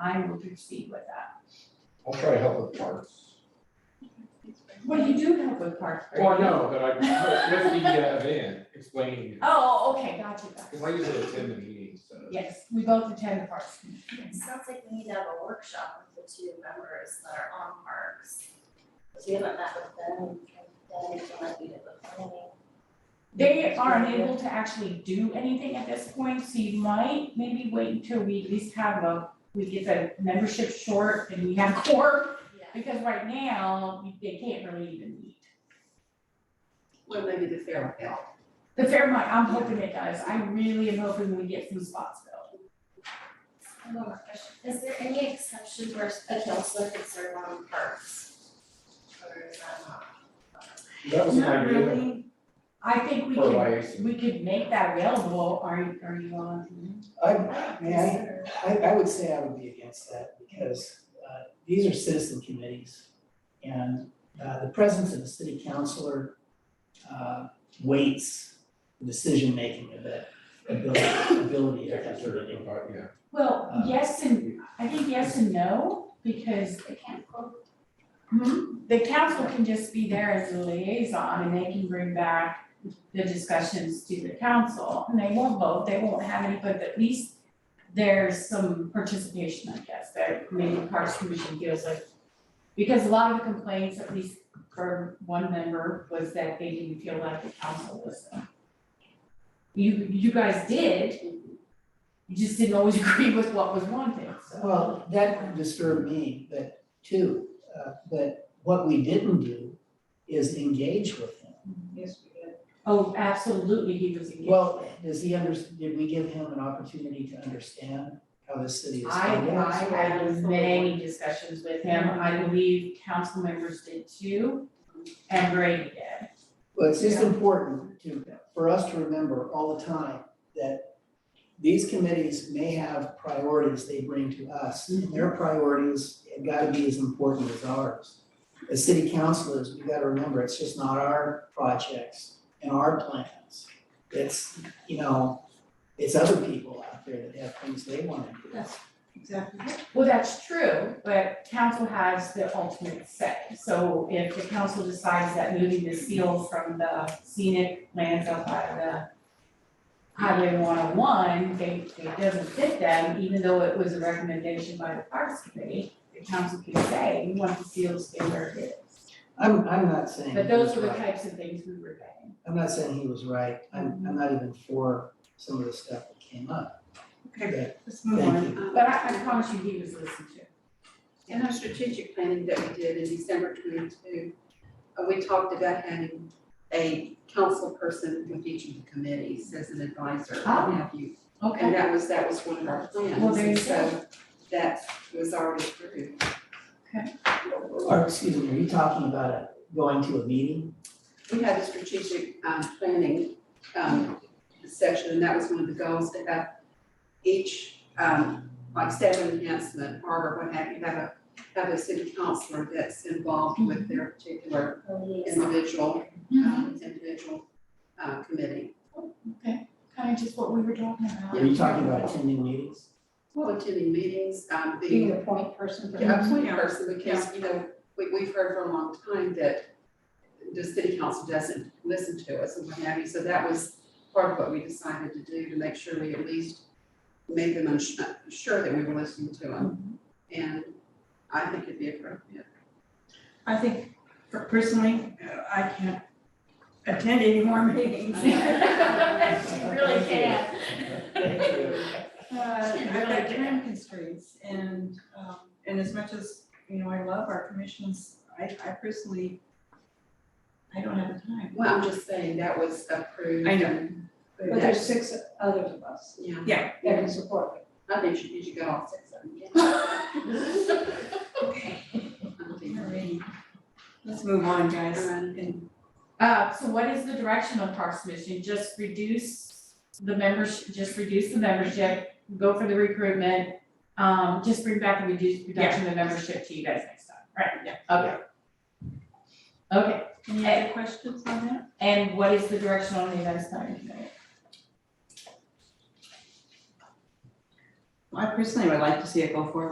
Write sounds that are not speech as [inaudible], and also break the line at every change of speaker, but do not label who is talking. I will proceed with that.
I'll try to help with parts.
Well, you do help with parks. right?
Well, Oh, I know, but I, with the uh, event, explaining, it.
Oh, okay, got you, got
cause I
you.
usually attend the meetings, so.
Yes, we both attend the parks. Committee.
It sounds like we need to have a workshop with the two members that are on parks. So we haven't met with them, and then we might be at the planning.
They are unable to actually do anything at this point, so you might maybe wait until we at least have a, we get the membership short and we have [laughs] core,
Yeah.
because right now, we- they can't really even meet.
Well, maybe the fair will help.
The Fairmont, I'm hoping it does, I really am hoping we get some spots filled.
I have a question. Is there any exception where a counselor could serve on parks? Or is that not?
That was an idea
I think we
for
could,
YAC.
we could make that available, are, are you on?
I, man, I, I, I would say I would be against that because, uh, these are citizen committees. And, uh, the presence of a city councillor, uh, weights the decision-making of that ability, ability
Yeah,
of that
consider it,
committee.
yeah.
Well,
Uh,
yes and, I think yes and no, because
They can't quote.
Hmm, the council can just be there as a liaison and they can bring back the discussions to the council. And they won't vote, they won't have any, but at least there's some participation, I guess, that maybe the Parks Commission feels like. Because a lot of the complaints, at least for one member, was that they didn't feel like the council listened. You, you guys did, you just didn't always [laughs] agree with what was wanted, so.
Well, that disturbed me, but too, uh, but what we didn't do is engage with him.
Yes, we did.
Oh, absolutely, he was engaged.
Well, does he under, did we give him an opportunity to understand how this city is
I,
funded?
I had many discussions with him, I believe council members did too, and Brady did.
Well, it's just important to, for us to remember all the time that these committees may have priorities they bring to us.
Mm-hmm.
and Their priorities have got to be as important as ours. As city councilors, we got to remember, it's just not our projects and our plans. It's, you know, it's other people out there that have things they want to do.
Exactly.
Well, that's true, but council has the ultimate say, so if the council decides that moving the seal from the scenic lands up by the highway one oh one, they, it doesn't fit them, even though it was a recommendation by the parks committee, the council can say, we want the seal to stay where it is.
I'm, I'm not saying
But those
he's
were the
right.
types of things we were getting.
I'm not saying he was right. I'm,
Mm-hmm.
I'm not even for some of the stuff that came up.
Okay, let's move
Thank
on.
But I, I promise you, he was listened to.
In our strategic planning that we did in December twenty-two, uh, we talked about having a council person with each of the committees as an advisor, what
Ah.
have you. And that was, that was one of our plans.
Well, there you
and So that was already through.
Okay.
Or, excuse me, are you talking about a- going to a meeting?
We had a strategic um, planning um, section, and that was one of the goals to have each, um, like seven enhancement, harbor, what have you, have a, have a city councilor that's involved with their particular individual, um, individual uh, committee.
Kind of just what we were talking about.
Are you talking about attending meetings?
Well, attending meetings, um,
being
the
the point
[laughs]
person for the
yeah, appointed person, because, you know, we, we've heard for a long time that the city council doesn't listen to us and what have you, so that was part of what we decided to do, to make sure we at least made them unsure, sure that we were listening to them. And I think it'd be
[laughs]
appropriate.
I think per- personally, uh, I can't attend any more meetings.
Really can.
Uh, I've got time constraints and, um, and as much as, you know, I love our commissions, I, I personally, I don't have the time.
Well, I'm just saying that was approved.
I know.
and-
But
But
there's-
that's,
six others of us
yeah,
Yeah,
that can support it.
I think you, you should go all six of them.
[laughs]
[laughs]
all right. Let's move on, guys.
Uh, so what is the direction of Parks Commission? Just reduce the membership, just reduce the membership, go for the recruitment. Um, just bring back the reduced reduction of membership to you guys next time, right? Yeah. Okay. Okay,
Any other questions on that?
and what is the direction on the events planning committee?
I personally would like to see it go forward